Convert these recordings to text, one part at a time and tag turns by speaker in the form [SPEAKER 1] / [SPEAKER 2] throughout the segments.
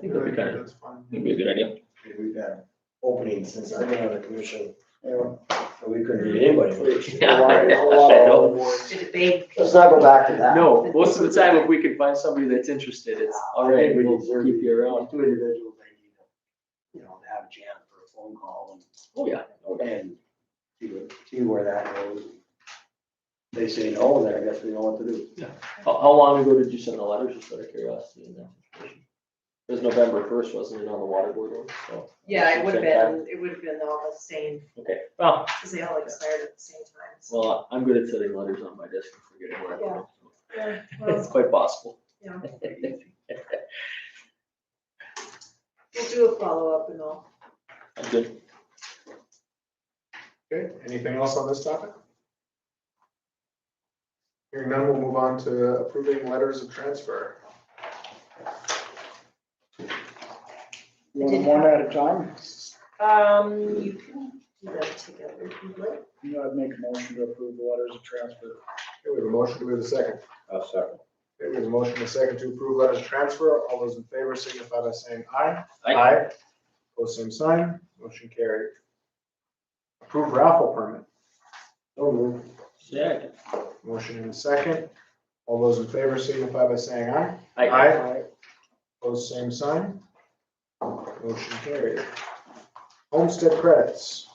[SPEAKER 1] think that'd be kind of,
[SPEAKER 2] That's fine.
[SPEAKER 1] that'd be a good idea.
[SPEAKER 3] We've had openings since I've been on the commission, you know, so we couldn't read anybody.
[SPEAKER 1] Yeah.
[SPEAKER 3] A lot- a lot of other boards.
[SPEAKER 4] Did it big. uh,
[SPEAKER 3] Let's not go back to that.
[SPEAKER 5] No, most of the time, if we can find somebody that's interested, it's, all
[SPEAKER 3] I
[SPEAKER 5] right,
[SPEAKER 3] think we
[SPEAKER 5] we'll
[SPEAKER 3] deserve
[SPEAKER 5] keep you around.
[SPEAKER 3] Two individuals, I need to, you know, to have a jam for a phone call
[SPEAKER 5] Oh, yeah.
[SPEAKER 3] and, and see, what- see where that goes. They say no, then I guess we know what to do.
[SPEAKER 5] How, how long ago did you send the letters, just out of curiosity? in that situation? It was November first, wasn't it, on the water board one, so.
[SPEAKER 4] Yeah, it would have been, it would have been all the same,
[SPEAKER 5] Okay, well,
[SPEAKER 4] because they all expired at the same time. so.
[SPEAKER 5] well, I'm good at setting letters on my desk and forgetting where I put them. so
[SPEAKER 4] Yeah,
[SPEAKER 5] It's
[SPEAKER 4] well,
[SPEAKER 5] quite possible.
[SPEAKER 4] yeah. We'll do a follow-up and all.
[SPEAKER 5] I'm good.
[SPEAKER 2] Okay, anything else on this topic? Hearing none, we'll move on to approving letters of transfer.
[SPEAKER 4] You want one
[SPEAKER 6] at a time?
[SPEAKER 4] Um, you can do that together if you'd like.
[SPEAKER 6] You know, I'd make a motion to approve the letters of transfer.
[SPEAKER 2] Okay, we have a motion, do we have a second?
[SPEAKER 3] i second.
[SPEAKER 2] Okay, we have a motion and a second to approve letters of transfer. All those in favor signify by saying aye.
[SPEAKER 5] Aye.
[SPEAKER 2] Pose same sign, motion carried. Approve raffle permit.
[SPEAKER 3] So moved.
[SPEAKER 5] Yeah.
[SPEAKER 2] Motion in a second. All those in favor signify by saying aye.
[SPEAKER 5] I, I,
[SPEAKER 2] Aye. Pose same sign. Motion carried. Homestead credits.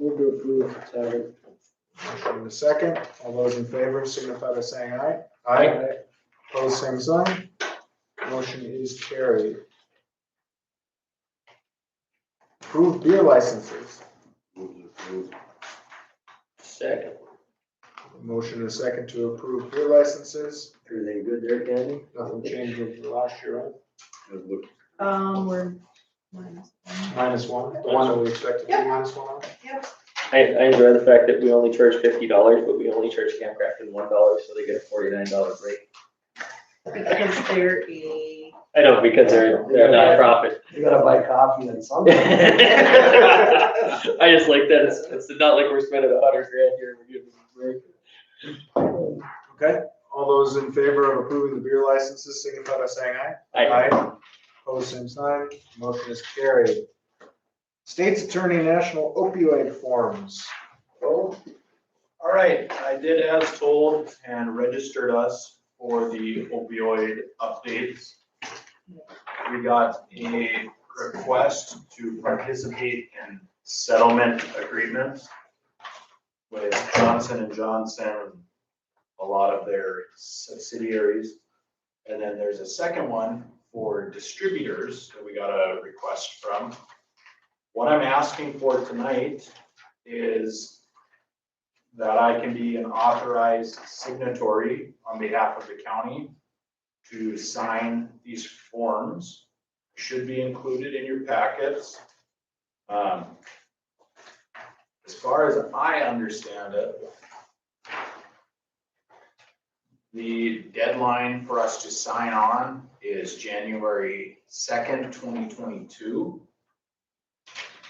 [SPEAKER 6] Move to approve. Second.
[SPEAKER 2] Motion in a second. All those in favor signify by saying aye.
[SPEAKER 5] Aye.
[SPEAKER 2] Pose same sign. Motion is carried. Approved beer licenses.
[SPEAKER 5] second.
[SPEAKER 2] Motion in a second to approve beer licenses.
[SPEAKER 3] Everything good there, Candy?
[SPEAKER 2] Nothing changed from last year, right?
[SPEAKER 4] Um, we're, mine's-
[SPEAKER 2] Minus one, the one that we expected to be minus one on.
[SPEAKER 5] I, I enjoy the fact that we only charge fifty dollars, but we only charge Camp Crafton one dollar, so they get a forty-nine dollar break.
[SPEAKER 4] because they're a,
[SPEAKER 5] I know, because they're, they're a nonprofit.
[SPEAKER 3] You gotta buy coffee and something.
[SPEAKER 5] I just like that, it's, it's not like we're spending a hundred grand here, we're giving them a break.
[SPEAKER 2] Okay, all those in favor of approving the beer licenses signify by saying aye.
[SPEAKER 5] Aye.
[SPEAKER 2] Opposed, same sign, motion is carried. State's Attorney National Opioid Forms.
[SPEAKER 7] All right, I did as told and registered us for the opioid updates. We got a request to participate in settlement agreements with Johnson and Johnson, a lot of their subsidiaries. And then there's a second one for distributors that we got a request from. What I'm asking for tonight is that I can be an authorized signatory on behalf of the county to sign these forms. Should be included in your packets. Um, As far as I understand it, the deadline for us to sign on is January second, twenty twenty-two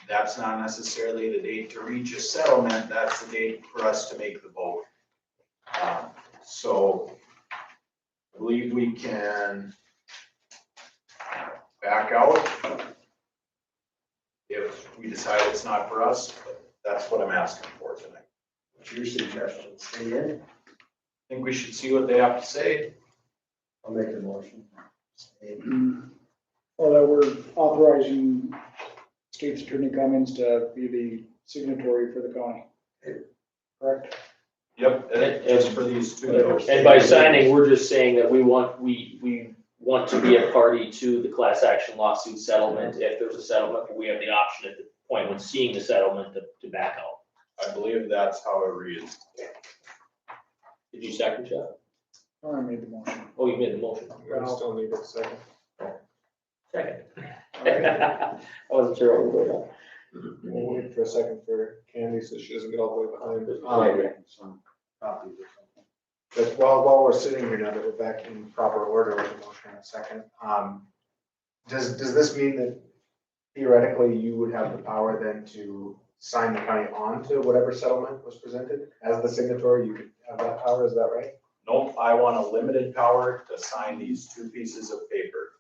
[SPEAKER 7] that's not necessarily the date to reach a settlement, that's the date for us to make the vote. Um, So I believe we can back out if we decide it's not for us, but that's what I'm asking for tonight.
[SPEAKER 3] What's your suggestion? Stay in?
[SPEAKER 7] I think we should see what they have to say.
[SPEAKER 3] I'll make the motion. Stay in.
[SPEAKER 6] Well, that we're authorizing state's attorney Cummings to be the signatory for the county. Correct?
[SPEAKER 7] Yep. It's for these two.
[SPEAKER 5] And by signing, we're just saying that we want, we, we want to be a party to the class action lawsuit settlement. If there's a settlement, we have the option at the point when seeing the settlement to, to back out.
[SPEAKER 7] I believe that's how it reads.
[SPEAKER 5] Did you second Jeff?
[SPEAKER 6] I made the motion.
[SPEAKER 5] Oh, you made the motion.
[SPEAKER 2] We still need a second.
[SPEAKER 5] Second.
[SPEAKER 2] Alright,
[SPEAKER 5] I wasn't sure what was going on.
[SPEAKER 2] We'll wait for a second for Candy so she doesn't get all the way behind.
[SPEAKER 3] I'll
[SPEAKER 2] Um,
[SPEAKER 3] make some copies or something.
[SPEAKER 2] But while, while we're sitting here now that we're back in proper order with the motion in a second, um, does, does this mean that theoretically you would have the power then to sign the county on to whatever settlement was presented? As the signatory, you could have that power, is that right?
[SPEAKER 7] Nope, I want a limited power to sign these two pieces of paper.